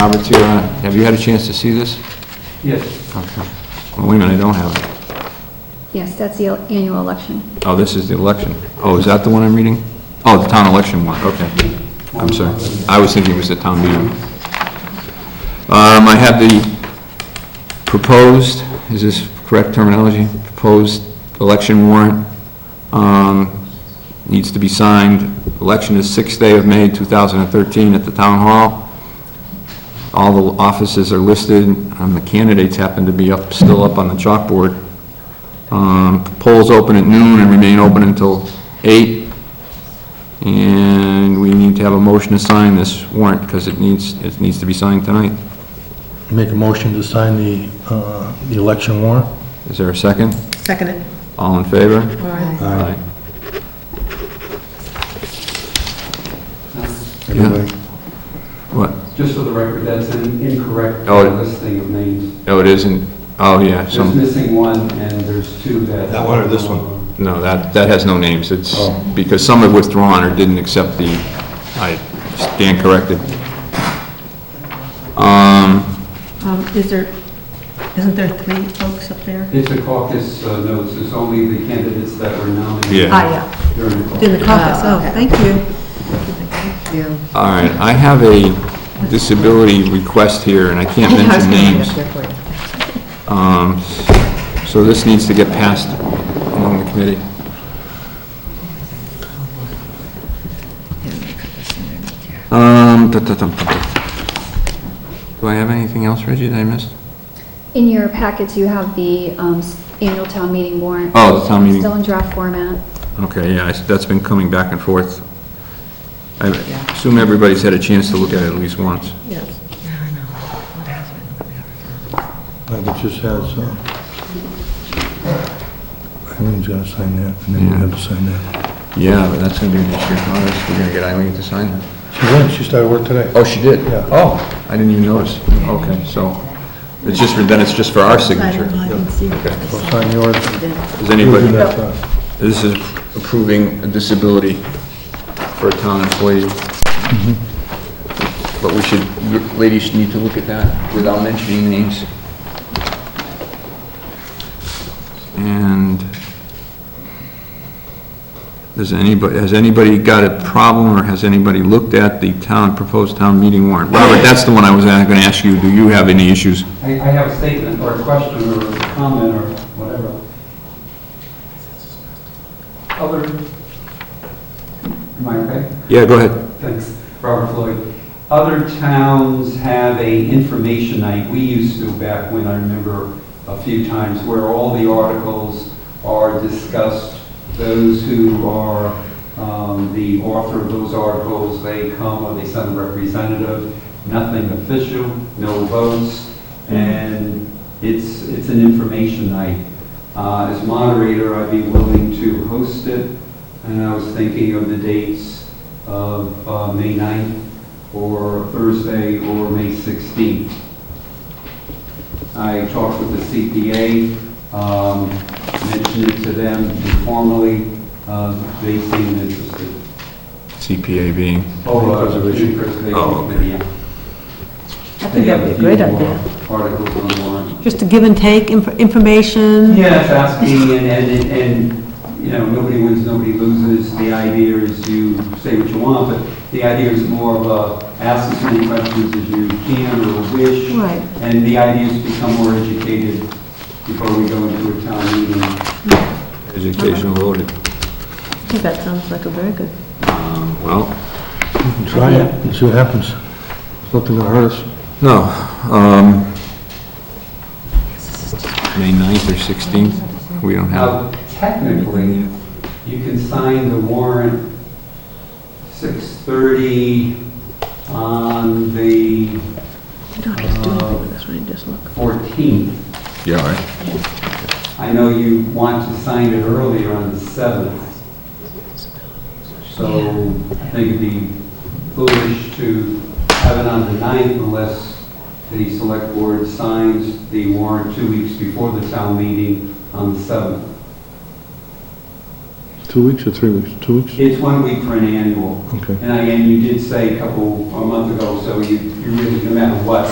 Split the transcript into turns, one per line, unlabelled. Robert's here on it. Have you had a chance to see this?
Yes.
Okay. Oh, Wait a minute, I don't have it.
Yes, that's the annual election.
Oh, this is the election. Oh, is that the one I'm reading? Oh, the town election one, okay. I'm sorry. I was thinking it was the town meeting. Um, I have the proposed, is this correct terminology? Proposed election warrant, um, needs to be signed. Election is sixth day of May, 2013, at the town hall. All the offices are listed, and the candidates happen to be up, still up on the chalkboard. Um, Polls open at noon and remain open until eight. And we need to have a motion to sign this warrant because it needs, it needs to be signed tonight.
Make a motion to sign the, uh, the election warrant?
Is there a second?
Second it.
All in favor?
Aye.
Aye.
Everybody?
What?
Just for the record, that's an incorrect
Oh, it-
listing of names.
Oh, it isn't, oh, yeah,
There's
some,
missing one, and there's two that...
That one or this one?
no, that, that has no names. It's
Oh.
because some have withdrawn or didn't accept the, I stand corrected. Um,
Um, Is there, isn't there three folks up there?
It's a caucus uh, notes, it's only the candidates that were nominated
Yeah.
Ah,
during the
yeah,
caucus.
in the caucus,
Oh,
oh,
okay.
thank you.
Yeah.
All right, I have a disability request here, and I can't mention names. Um, So this needs to get passed along the committee. Um, da, da, dum, dum, dum. Do I have anything else, Reggie, that I missed?
In your packets, you have the um, s- annual town meeting warrant.
Oh, the town meeting.
Still in draft format.
Okay, yeah, I s- that's been coming back and forth. I assume everybody's had a chance to look at it at least once.
Yes.
I think it just has, uh, Eileen's gotta sign that, and then you have to sign that.
Yeah, but that's gonna be an issue. Oh, that's- We're gonna get Eileen to sign that.
She went, she started work today.
Oh, she did?
Yeah.
Oh, I didn't even notice. Okay, so, it's just, for then it's just for our
I
signature.
don't know, I didn't see it.
So sign yours.
Does anybody,
You do that, uh,
this is approving a disability for a town employee. Mm-hmm. But we should, ladies need to look at that without mentioning names. And does anybody, has anybody got a problem or has anybody looked at the town, proposed town meeting warrant? Robert, that's the one I was going to ask you. Do you have any issues?
I I have a statement or a question or a comment or whatever. Other, am I okay?
Yeah, go ahead.
Thanks, Robert Floyd. Other towns have a information night, we used to back when, I remember a few times, where all the articles are discussed. Those who are um, the author of those articles, they come or they send a representative, nothing official, no votes, and it's, it's an information night. Uh, As moderator, I'd be willing to host it, and I was thinking of the dates of uh, May 9th, or Thursday, or May 16th. I talked with the CPA, um, mentioned it to them informally, uh, they seemed interested.
CPA being.
Oh, uh, Community Preservation
Oh, okay.
Committee, yeah.
I think that'd be a great idea.
Articles on the warrant.
Just a give and take, inf- information.
Yeah, it's asking, and, and, and, you know, nobody wins, nobody loses. The idea is you say what you want, but the idea is more of a, ask as many questions as you can or wish.
Right.
And the idea is to become more educated before we go into a town meeting.
Educational voted.
I think that sounds like a very good.
Um, Well,
you can Try it, and see what happens. It's Nothing gonna hurt us.
No. um, May 9th or 16th, we don't have.
Now, technically, you can sign the warrant 6:30 on the
You don't have to do anything with this one, you just look.
14th.
Yeah, all right.
I know you want to sign it earlier on the 7th. So I think it'd be foolish to have it on the 9th unless the select board signs the warrant two weeks before the town meeting on the 7th.
Two weeks or three weeks? Two weeks?
It's one week for an annual.
Okay.
And again, you did say a couple, a month ago, so you, you really, no matter what,